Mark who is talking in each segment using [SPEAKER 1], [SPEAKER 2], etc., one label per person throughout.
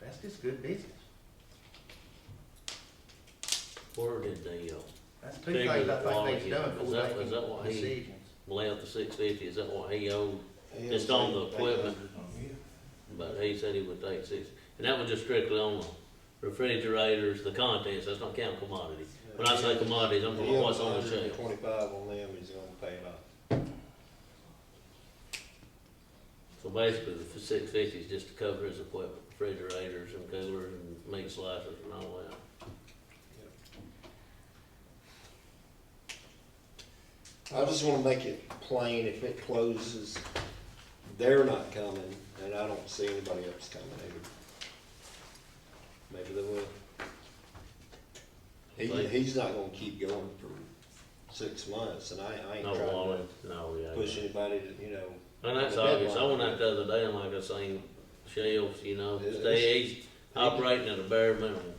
[SPEAKER 1] That's just good business.
[SPEAKER 2] Where did they, uh,
[SPEAKER 1] That's two
[SPEAKER 2] Figure
[SPEAKER 1] things I
[SPEAKER 2] the
[SPEAKER 1] think
[SPEAKER 2] quality.
[SPEAKER 1] they've done
[SPEAKER 2] Is
[SPEAKER 1] before
[SPEAKER 2] that- is that
[SPEAKER 1] making
[SPEAKER 2] what he-
[SPEAKER 1] decisions.
[SPEAKER 2] lay out the six fifty, is that what he owed? Just on the equipment, but he said he would take six, and that was just strictly on the refrigerators, the contents, that's not counting commodities. When I say commodities, I'm talking what's on the shelf.
[SPEAKER 3] Twenty-five on them, he's gonna pay it off.
[SPEAKER 2] So basically, the six fifty is just to cover his equipment, refrigerators and coolers and meat slicers and all that.
[SPEAKER 3] I just wanna make it plain, if it closes, they're not coming, and I don't see anybody else coming either. Maybe they will. He, he's not gonna keep going for six months, and I, I ain't
[SPEAKER 2] No
[SPEAKER 3] trying
[SPEAKER 2] wallet, no, yeah.
[SPEAKER 3] to
[SPEAKER 2] yeah.
[SPEAKER 3] push anybody to, you know,
[SPEAKER 2] And that's
[SPEAKER 3] The
[SPEAKER 2] obvious, I
[SPEAKER 3] deadline.
[SPEAKER 2] went out the other day, and like I seen shelves, you know,
[SPEAKER 3] Yeah,
[SPEAKER 2] stay operating at a bare minimum.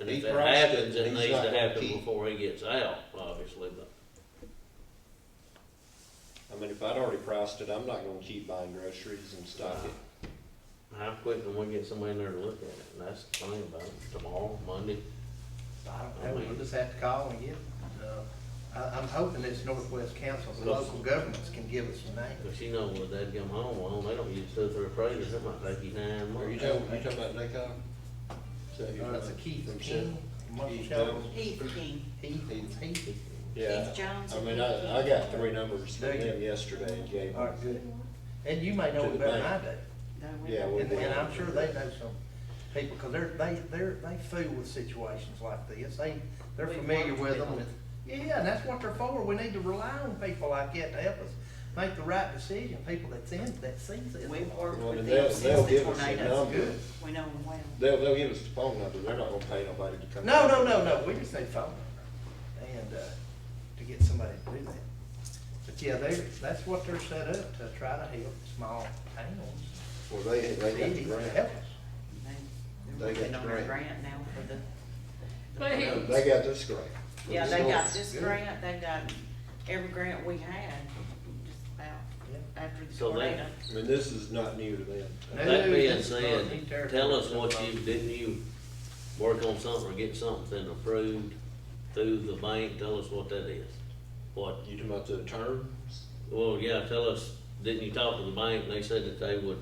[SPEAKER 2] And
[SPEAKER 3] He
[SPEAKER 2] if that
[SPEAKER 3] priced it,
[SPEAKER 2] happens, it
[SPEAKER 3] he's
[SPEAKER 2] needs
[SPEAKER 3] not
[SPEAKER 2] to
[SPEAKER 3] gonna
[SPEAKER 2] happen
[SPEAKER 3] keep.
[SPEAKER 2] before he gets out, obviously, but.
[SPEAKER 3] I mean, if I'd already priced it, I'm not gonna keep buying groceries and stock it.
[SPEAKER 2] How quick can we get somebody in there to look at it, and that's the thing about it, tomorrow, Monday,
[SPEAKER 1] I don't know, we'll just have to call and get, uh, I, I'm hoping this Northwest Council, the local governments can give us a name.
[SPEAKER 2] but you know, when they come home, well, they don't use two, three appraisers, it might take you nine
[SPEAKER 3] Are you
[SPEAKER 2] months.
[SPEAKER 3] talking, you talking about NACO? Is that
[SPEAKER 1] Uh,
[SPEAKER 3] your-
[SPEAKER 1] It's a Keith
[SPEAKER 3] Them shit?
[SPEAKER 1] King, Marshall
[SPEAKER 3] Keith
[SPEAKER 1] Shelton,
[SPEAKER 3] Jones?
[SPEAKER 4] Heath King,
[SPEAKER 1] Heath, Heath.
[SPEAKER 3] Yeah,
[SPEAKER 4] Keith Jones.
[SPEAKER 3] I mean, I, I got three numbers from
[SPEAKER 1] Do you?
[SPEAKER 3] them yesterday and gave
[SPEAKER 1] All
[SPEAKER 3] them.
[SPEAKER 1] right, good. And you may know it better than I do.
[SPEAKER 4] No, we
[SPEAKER 3] Yeah,
[SPEAKER 4] don't.
[SPEAKER 3] we-
[SPEAKER 1] And, and I'm sure they know some people, because they're, they, they're, they fool with situations like this, they, they're
[SPEAKER 4] We've
[SPEAKER 1] familiar
[SPEAKER 4] worked
[SPEAKER 1] with
[SPEAKER 4] with
[SPEAKER 1] them.
[SPEAKER 4] them.
[SPEAKER 1] Yeah, and that's what they're for, we need to rely on people like that to help us make the right decision, people that's in, that sees it.
[SPEAKER 4] We've worked
[SPEAKER 3] Well,
[SPEAKER 4] with
[SPEAKER 3] they'll,
[SPEAKER 4] them
[SPEAKER 3] they'll
[SPEAKER 4] since the
[SPEAKER 3] give us a
[SPEAKER 4] tornadoes.
[SPEAKER 3] number,
[SPEAKER 1] Good.
[SPEAKER 4] We know them well.
[SPEAKER 3] they'll, they'll give us the phone number, they're not gonna pay nobody to come.
[SPEAKER 1] No, no, no, no, we just need phone number, and, uh, to get somebody to do that. But yeah, they, that's what they're set up, to try to help small towns,
[SPEAKER 3] Well, they, they got the
[SPEAKER 1] cities, to help
[SPEAKER 3] grant,
[SPEAKER 1] us.
[SPEAKER 4] They-
[SPEAKER 3] They
[SPEAKER 4] They're working
[SPEAKER 3] got
[SPEAKER 4] on a
[SPEAKER 3] grant.
[SPEAKER 4] grant now for the.
[SPEAKER 5] But he-
[SPEAKER 3] No, they got this grant.
[SPEAKER 4] Yeah, they got
[SPEAKER 1] Good.
[SPEAKER 4] this grant, they got every grant we had, just about
[SPEAKER 1] Yeah.
[SPEAKER 4] after the
[SPEAKER 2] So they-
[SPEAKER 4] tornado.
[SPEAKER 3] I mean, this is not new to them.
[SPEAKER 2] That
[SPEAKER 1] No,
[SPEAKER 2] being
[SPEAKER 1] that's not neat
[SPEAKER 2] said,
[SPEAKER 1] territory.
[SPEAKER 2] tell us what you, didn't you work on something or get something approved through the bank, tell us what that is. What,
[SPEAKER 3] You talking about the terms?
[SPEAKER 2] well, yeah, tell us, didn't you talk to the bank and they said that they would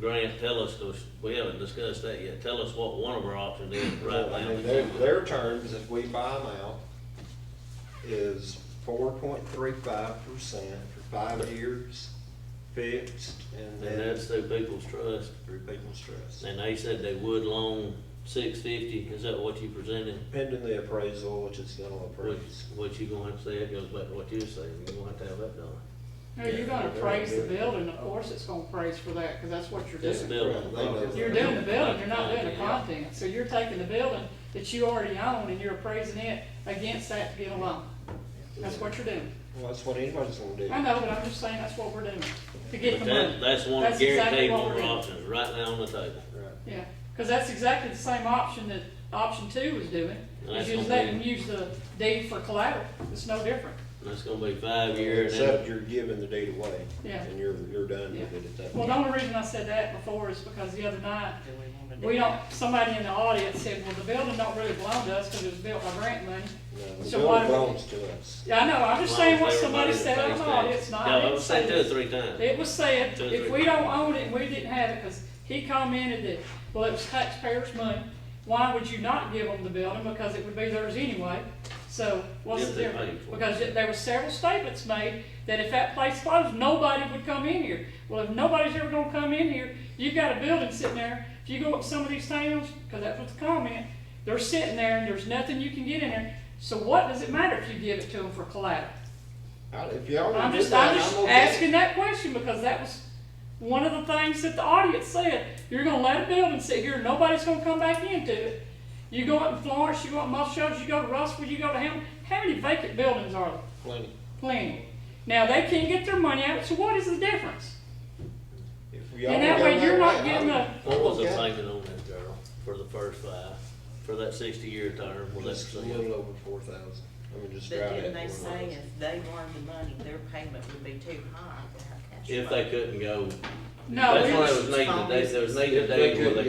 [SPEAKER 2] grant, tell us, those- we haven't discussed that yet, tell us what one of our options is right
[SPEAKER 3] Well, I
[SPEAKER 2] now.
[SPEAKER 3] mean, their, their terms, if we buy them out, is four point three five percent for five years fixed and
[SPEAKER 2] And
[SPEAKER 3] then
[SPEAKER 2] that's through People's Trust,
[SPEAKER 3] through people's trust.
[SPEAKER 2] and they said they would loan six fifty, is that what you presented?
[SPEAKER 3] Pending the appraisal, which is gonna
[SPEAKER 2] What,
[SPEAKER 3] appraise.
[SPEAKER 2] what you gonna have to say, that goes back to what you were saying, you're gonna have to have that done.
[SPEAKER 5] No, you're gonna praise the building, of course it's gonna praise for that, cause that's what you're
[SPEAKER 2] This
[SPEAKER 5] doing.
[SPEAKER 2] building.
[SPEAKER 3] Right, they know.
[SPEAKER 5] You're doing the building, you're not doing the content, so you're taking the building that you already own and you're appraising it against that to get a loan. That's what you're doing.
[SPEAKER 3] Well, that's what anybody's gonna do.
[SPEAKER 5] I know, but I'm just saying that's what we're doing, to get
[SPEAKER 2] But
[SPEAKER 5] the
[SPEAKER 2] that,
[SPEAKER 5] money.
[SPEAKER 2] that's one
[SPEAKER 5] That's exactly
[SPEAKER 2] guaranteed
[SPEAKER 5] what
[SPEAKER 2] one
[SPEAKER 5] we're
[SPEAKER 2] of our
[SPEAKER 5] doing.
[SPEAKER 2] options, right now on the table.
[SPEAKER 3] Right.
[SPEAKER 5] Yeah, cause that's exactly the same option that option two was doing,
[SPEAKER 2] That's
[SPEAKER 5] is just
[SPEAKER 2] gonna
[SPEAKER 5] letting
[SPEAKER 2] be-
[SPEAKER 5] use the deed for collateral, it's no different.
[SPEAKER 2] And that's gonna be five years.
[SPEAKER 3] Except you're giving the deed away.
[SPEAKER 5] Yeah.
[SPEAKER 3] And you're, you're done
[SPEAKER 5] Yeah.
[SPEAKER 3] with it at that
[SPEAKER 5] Well, the
[SPEAKER 3] point.
[SPEAKER 5] only reason I said that before is because the other night,
[SPEAKER 4] Do we wanna do
[SPEAKER 5] We don't,
[SPEAKER 4] that?
[SPEAKER 5] somebody in the audience said, well, the building don't really belong to us because it was built by grant money.
[SPEAKER 3] No, The
[SPEAKER 5] So why
[SPEAKER 3] bill
[SPEAKER 5] do we-
[SPEAKER 3] belongs to us.
[SPEAKER 5] Yeah, I know, I'm just saying what somebody said on
[SPEAKER 2] on
[SPEAKER 5] the audience, not, I
[SPEAKER 2] No, I
[SPEAKER 5] didn't
[SPEAKER 2] was saying
[SPEAKER 5] say
[SPEAKER 2] two or
[SPEAKER 5] this.
[SPEAKER 2] three times.
[SPEAKER 5] It was said,
[SPEAKER 2] Two or
[SPEAKER 5] if
[SPEAKER 2] three
[SPEAKER 5] we don't
[SPEAKER 2] times.
[SPEAKER 5] own it and we didn't have it, because he commented that, well, it was taxpayers' money, why would you not give them the building? Because it would be theirs anyway. So what's
[SPEAKER 2] If
[SPEAKER 5] the
[SPEAKER 2] they paid
[SPEAKER 5] difference?
[SPEAKER 2] for it.
[SPEAKER 5] Because it- there were several statements made that if that place closed, nobody would come in here. Well, if nobody's ever gonna come in here, you've got a building sitting there, if you go up some of these towns, because that was the comment, they're sitting there and there's nothing you can get in there. So what does it matter if you give it to them for collateral?
[SPEAKER 3] I- If y'all
[SPEAKER 5] I'm
[SPEAKER 3] want to do
[SPEAKER 5] just, I'm
[SPEAKER 3] that,
[SPEAKER 5] just
[SPEAKER 3] I'm okay.
[SPEAKER 5] asking that question because that was one of the things that the audience said. You're gonna let a building sit here, nobody's gonna come back into it. You go up in Florence, you go up in Muscle Shoals, you go to Russell, you go to Hamilton, how many vacant buildings are there?
[SPEAKER 3] Plenty.
[SPEAKER 5] Plenty. Now, they can't get their money out, so what is the difference?
[SPEAKER 3] If y'all
[SPEAKER 5] And that
[SPEAKER 3] go
[SPEAKER 5] way you're not
[SPEAKER 3] way,
[SPEAKER 5] getting
[SPEAKER 3] I'm-
[SPEAKER 2] What was the
[SPEAKER 3] okay.
[SPEAKER 2] payment on that, Gerald, for the first five, for that sixty-year term, was
[SPEAKER 3] Just a
[SPEAKER 2] that?
[SPEAKER 3] little over four thousand. I mean, just
[SPEAKER 4] But
[SPEAKER 3] drive
[SPEAKER 4] didn't
[SPEAKER 3] it.
[SPEAKER 4] they
[SPEAKER 3] at four
[SPEAKER 4] say
[SPEAKER 3] thousand.
[SPEAKER 4] if they loaned the money, their payment would be too high? to have cash
[SPEAKER 2] If
[SPEAKER 4] flow?
[SPEAKER 2] they couldn't go,
[SPEAKER 5] No,
[SPEAKER 2] that's
[SPEAKER 5] we
[SPEAKER 2] why
[SPEAKER 5] was-
[SPEAKER 2] it was needed, they, there was needed
[SPEAKER 3] If they
[SPEAKER 2] days where
[SPEAKER 3] couldn't
[SPEAKER 2] they